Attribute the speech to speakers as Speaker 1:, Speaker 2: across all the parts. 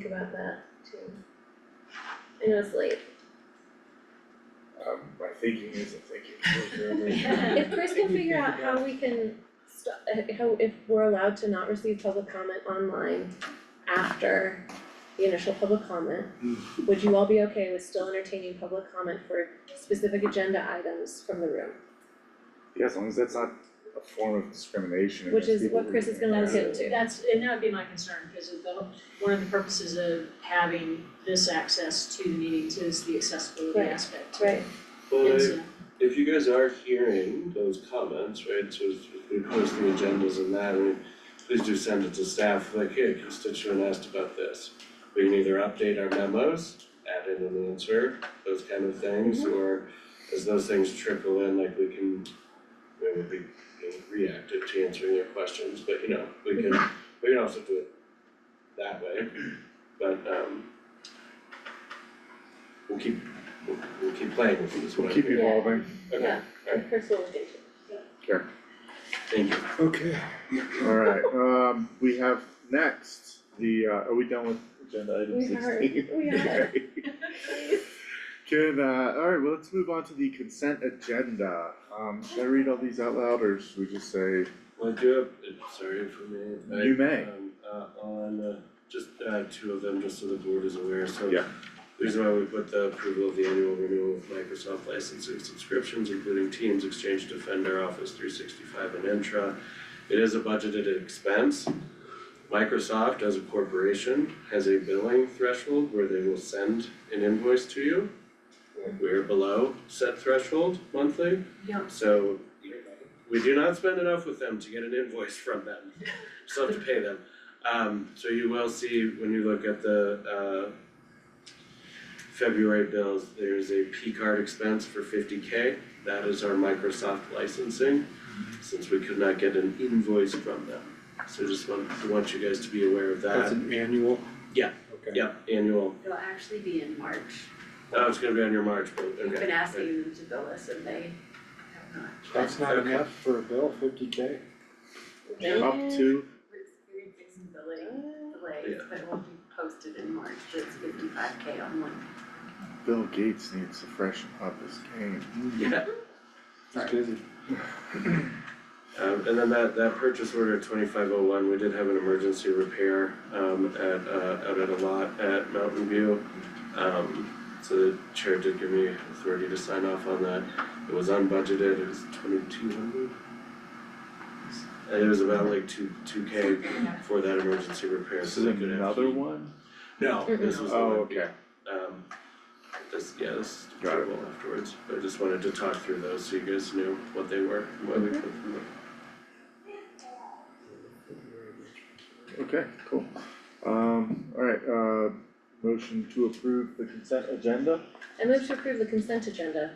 Speaker 1: think about that too. I know it's late.
Speaker 2: Um, my thinking isn't thinking.
Speaker 1: If Chris can figure out how we can stop, how, if we're allowed to not receive public comment online after the initial public comment, would you all be okay with still entertaining public comment for specific agenda items from the room?
Speaker 2: Yeah, as long as that's not a form of discrimination
Speaker 1: Which
Speaker 2: against
Speaker 1: is
Speaker 2: people
Speaker 1: what Chris is
Speaker 2: reading
Speaker 1: gonna
Speaker 2: it.
Speaker 1: look into.
Speaker 3: That's, and that would be my concern, because of the, one of the purposes of having this access to the meetings is the accessibility
Speaker 1: Right.
Speaker 3: aspect.
Speaker 1: Right.
Speaker 4: Well,
Speaker 3: And
Speaker 4: if,
Speaker 3: so,
Speaker 4: if you guys are hearing those comments, right, so if if we post the agendas and that, and please do send it to staff, like, hey, a constituent asked about this. We can either update our memos, add in an answer, those kind of things, or as those things trickle in, like we can, you know, be, you know, reactive to answering their questions, but you know, we can, we can also do it that way, but um we'll keep, we'll, we'll keep playing with this one.
Speaker 2: We'll keep evolving.
Speaker 4: Okay,
Speaker 1: And Chris will look into it.
Speaker 4: thank you.
Speaker 2: Okay. Alright, um, we have next, the, uh, are we done with agenda item
Speaker 1: We
Speaker 2: sixteen?
Speaker 1: are- we are.
Speaker 2: Okay. Can, uh, alright, well, let's move on to the consent agenda. Um, should I read all these out loud or should we just say?
Speaker 4: Well, I do have, uh, sorry for me, I
Speaker 2: You may.
Speaker 4: um uh on uh just uh two of them, just so the board is aware, so.
Speaker 2: Yeah.
Speaker 4: the Reason why we put the approval of the annual renewal of Microsoft licensing subscriptions, including Teams, Exchange Defender, Office three sixty-five and Intra. It is a budgeted expense. Microsoft as a corporation has a billing threshold where they will send an invoice to you. We're below said threshold monthly.
Speaker 3: yeah,
Speaker 4: So we do not spend enough with them to get an invoice from them, still have to pay them. Um so you will see when you look at the uh February bills, there's a P card expense for fifty K, that is our Microsoft licensing, since we could not get an invoice from them. So just want want you guys to be aware of
Speaker 5: That's
Speaker 4: that,
Speaker 5: an annual?
Speaker 4: Yeah.
Speaker 5: Okay.
Speaker 4: yeah, annual,
Speaker 6: It'll actually be in March.
Speaker 4: oh, it's gonna be on your March, but okay.
Speaker 6: We've been asking them to bill us and they have not.
Speaker 5: That's not
Speaker 4: Okay.
Speaker 5: enough for a bill, fifty K?
Speaker 2: Up to,
Speaker 6: We're experiencing billing
Speaker 1: Uh,
Speaker 6: delays, but it won't be posted in March, but it's fifty-five K on one.
Speaker 2: Bill Gates needs to freshen up his game.
Speaker 4: Yeah,
Speaker 5: It's busy.
Speaker 4: Um, and then that, that purchase order twenty-five oh one, we did have an emergency repair, um, at, uh, out at a lot at Mountain View. Um, so the chair did give me authority to sign off on that. It was unbudgeted, it was twenty-two hundred. And it was about like two, two K for that emergency repair, so they could have.
Speaker 2: one?
Speaker 4: No, this was the
Speaker 2: Oh,
Speaker 4: one,
Speaker 2: okay,
Speaker 4: um, this, yeah, this is
Speaker 2: Got it.
Speaker 4: terrible afterwards, but I just wanted to talk through those so you guys knew what they were, and why we put them there.
Speaker 2: okay, cool. Um, alright, uh, motion to approve the consent agenda?
Speaker 1: I move to approve the consent agenda.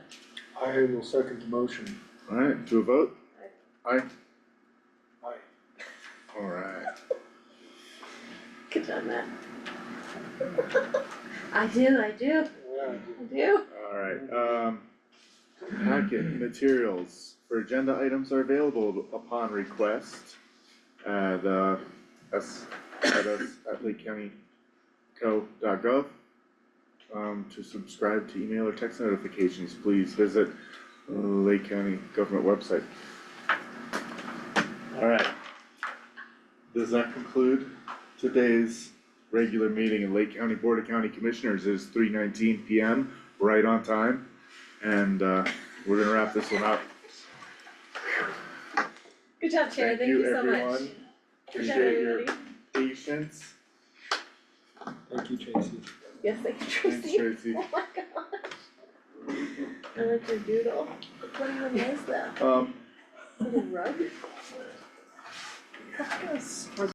Speaker 5: I will second the motion.
Speaker 2: Alright, to a vote? Aye.
Speaker 5: Aye.
Speaker 2: Alright,
Speaker 1: Good job, Matt.
Speaker 6: I do, I do,
Speaker 5: Yeah.
Speaker 1: I do.
Speaker 2: alright, um, packet materials for agenda items are available upon request at, uh, s, at us, at lakecountyco.gov. Um, to subscribe to email or text notifications, please visit Lake County Government website. Alright. Does that conclude today's regular meeting of Lake County Board of County Commissioners? It is three nineteen P M, right on time, and uh, we're gonna wrap this one up.
Speaker 1: Good job, Chair, thank you so much. Good
Speaker 2: everyone.
Speaker 1: job,
Speaker 2: Appreciate your
Speaker 1: everybody.
Speaker 2: patience.
Speaker 5: Thank you, Tracy.
Speaker 1: Yes, thank you,
Speaker 2: Thanks,
Speaker 1: Tracy.
Speaker 2: Tracy.
Speaker 1: Oh my gosh. I like your doodle. What even is that?
Speaker 2: Um,
Speaker 1: Is it a rug?